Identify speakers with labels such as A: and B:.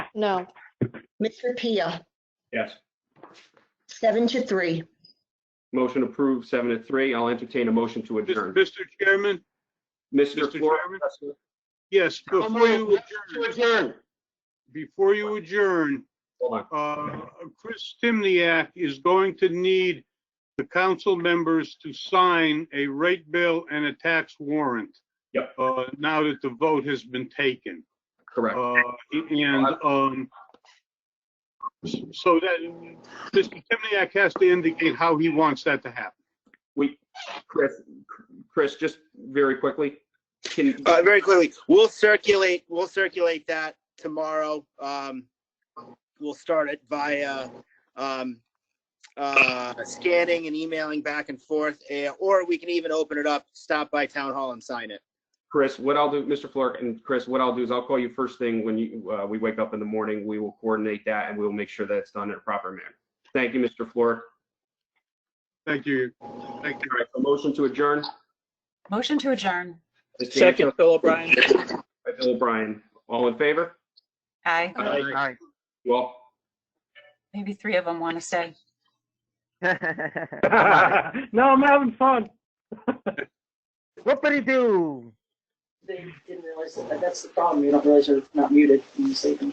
A: No.
B: Mr. Pia,
C: Yes.
B: seven to three.
C: Motion approved, seven to three. I'll entertain a motion to adjourn.
D: Mr. Chairman,
C: Mr.
D: Mr.
C: Flora.
D: Chairman? yes, before you adjourn, before you adjourn,
C: Hold on.
D: uh, Chris Timniak is going to need the council members to sign a rate bill and a tax warrant.
C: Yep.
D: Uh, now that the vote has been taken.
C: Correct.
D: Uh, and, um, so that, Mr. Timniak has to indicate how he wants that to happen.
C: We, Chris, Chris, just very quickly, can,
E: Uh, very quickly, we'll circulate, we'll circulate that tomorrow. Um, we'll start it via, um, uh, scanning and emailing back and forth, eh, or we can even open it up, stop by town hall and sign it.
C: Chris, what I'll do, Mr. Flora and Chris, what I'll do is I'll call you first thing when you, uh, we wake up in the morning. We will coordinate that and we will make sure that it's done in a proper manner. Thank you, Mr. Flora.
D: Thank you. Thank you.
C: All right, a motion to adjourn.
F: Motion to adjourn.
C: Mr.
G: Second, Phil O'Brien.
C: Yanko, Bill O'Brien, all in favor?
F: Aye.
G: Aye.
C: Well.
F: Maybe three of them want to stay.
H: no, I'm having fun. Whoopity-doo.
I: They didn't realize that, that's the problem, you don't realize you're not muted when you say them.